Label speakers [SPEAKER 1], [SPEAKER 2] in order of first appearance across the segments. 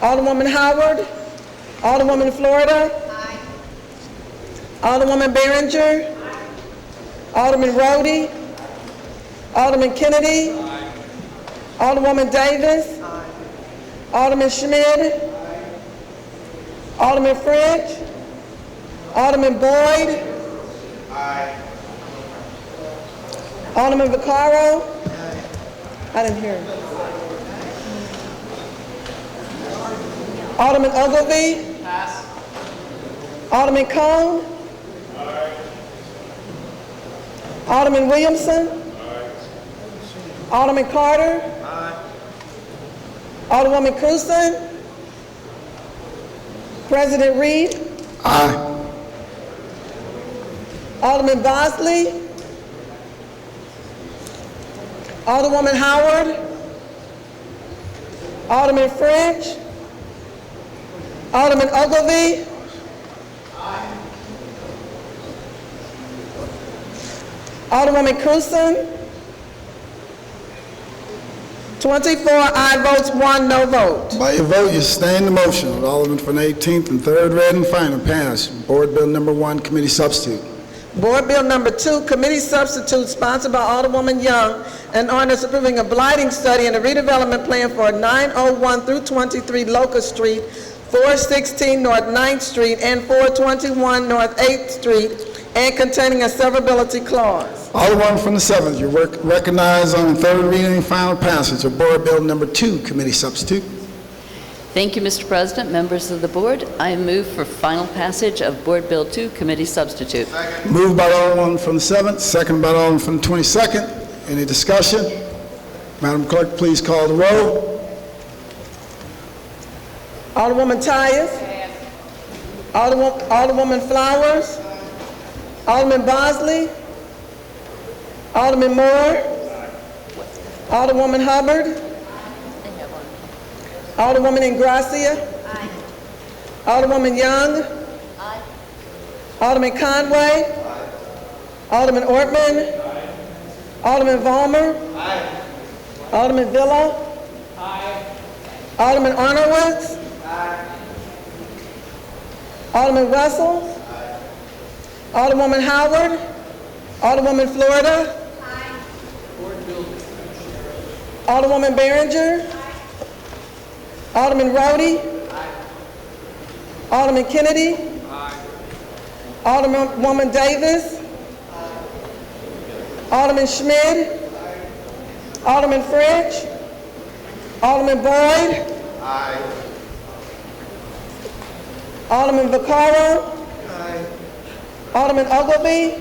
[SPEAKER 1] Alderwoman Howard? Alderwoman Florida? Alderwoman Behringer? Alderman Rhodey? Alderman Kennedy? Alderwoman Davis? Alderman Schmidt? Alderman French? Alderman Boyd? Alderman Vaccaro? I didn't hear him. Alderman Ogilvy? Alderman Cone? Alderman Williamson? Alderman Carter? Alderwoman Cruzen? President Reed? Alderman Bosley? Alderwoman Howard? Alderman French? Alderman Ogilvy? Alderwoman Cruzen? 24 aye votes, one no vote.
[SPEAKER 2] By your vote, you sustain the motion of Alderman from the 18th and third read and final pass. Board Bill Number One, Committee Substitute.
[SPEAKER 1] Board Bill Number Two, Committee Substitute, sponsored by Alderwoman Young, an ordinance approving a blighting study and a redevelopment plan for 901 through 23 Locust Street, 416 North 9th Street, and 421 North 8th Street, and containing a severability clause.
[SPEAKER 2] Alderman from the 7th, you rec- recognize on third reading and final passage of Board Bill Number Two, Committee Substitute.
[SPEAKER 3] Thank you, Mr. President, members of the board. I move for final passage of Board Bill 2, Committee Substitute.
[SPEAKER 2] Moved by Alderman from the 7th, second by Alderman from the 22nd. Any discussion? Madam Clerk, please call the roll.
[SPEAKER 1] Alderwoman Tyus. Alderwo- Alderwoman Flowers. Alderman Bosley. Alderman Moore. Alderwoman Hubbard. Alderwoman Ingracia. Alderwoman Young. Alderman Conway. Alderman Ortman. Alderman Vollmer. Alderman Villa. Alderman Honorwood. Alderman Russell. Alderwoman Howard. Alderwoman Florida. Alderwoman Behringer. Alderman Rhodey. Alderman Kennedy. Alderman Woman Davis. Alderman Schmidt. Alderman French. Alderman Boyd. Alderman Vaccaro. Alderman Ogilvy.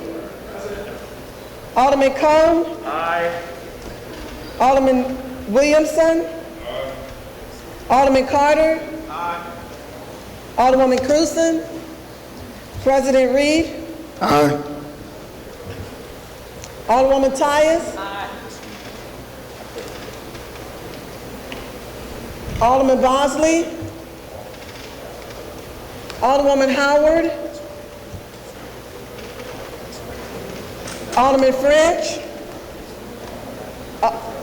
[SPEAKER 1] Alderman Cone. Alderman Williamson. Alderman Carter. Alderwoman Cruzen. President Reed.
[SPEAKER 2] Aye.
[SPEAKER 1] Alderwoman Tyus. Alderman Bosley. Alderwoman Howard. Alderman French. Uh, Al-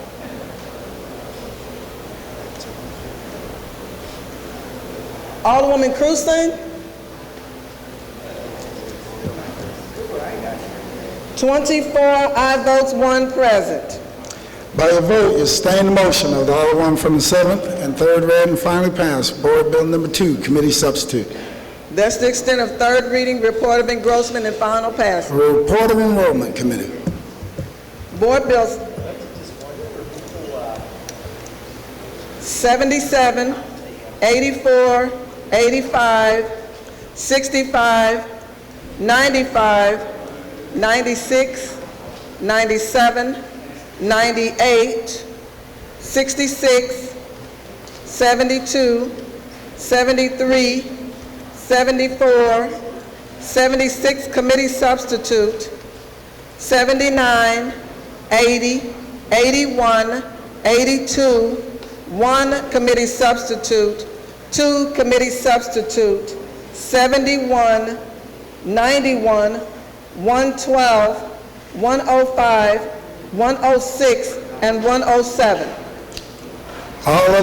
[SPEAKER 1] Alderwoman Cruzen. 24 aye votes, one present.
[SPEAKER 2] By your vote, you sustain the motion of the Alderman from the 7th and third read and finally passed. Board Bill Number Two, Committee Substitute.
[SPEAKER 1] That's the extent of third reading, report of engrossment, and final passage.
[SPEAKER 2] Report of Enrollment Committee.
[SPEAKER 1] Board Bills 77, 84, 85, 65, 95, 96, 97, 98, 66, 72, 73, 74, 76 committee substitute, 79, 80, 81, 82, 1 committee substitute, 2 committee substitute, 71, 91, 112, 105, 106, and 107.
[SPEAKER 2] All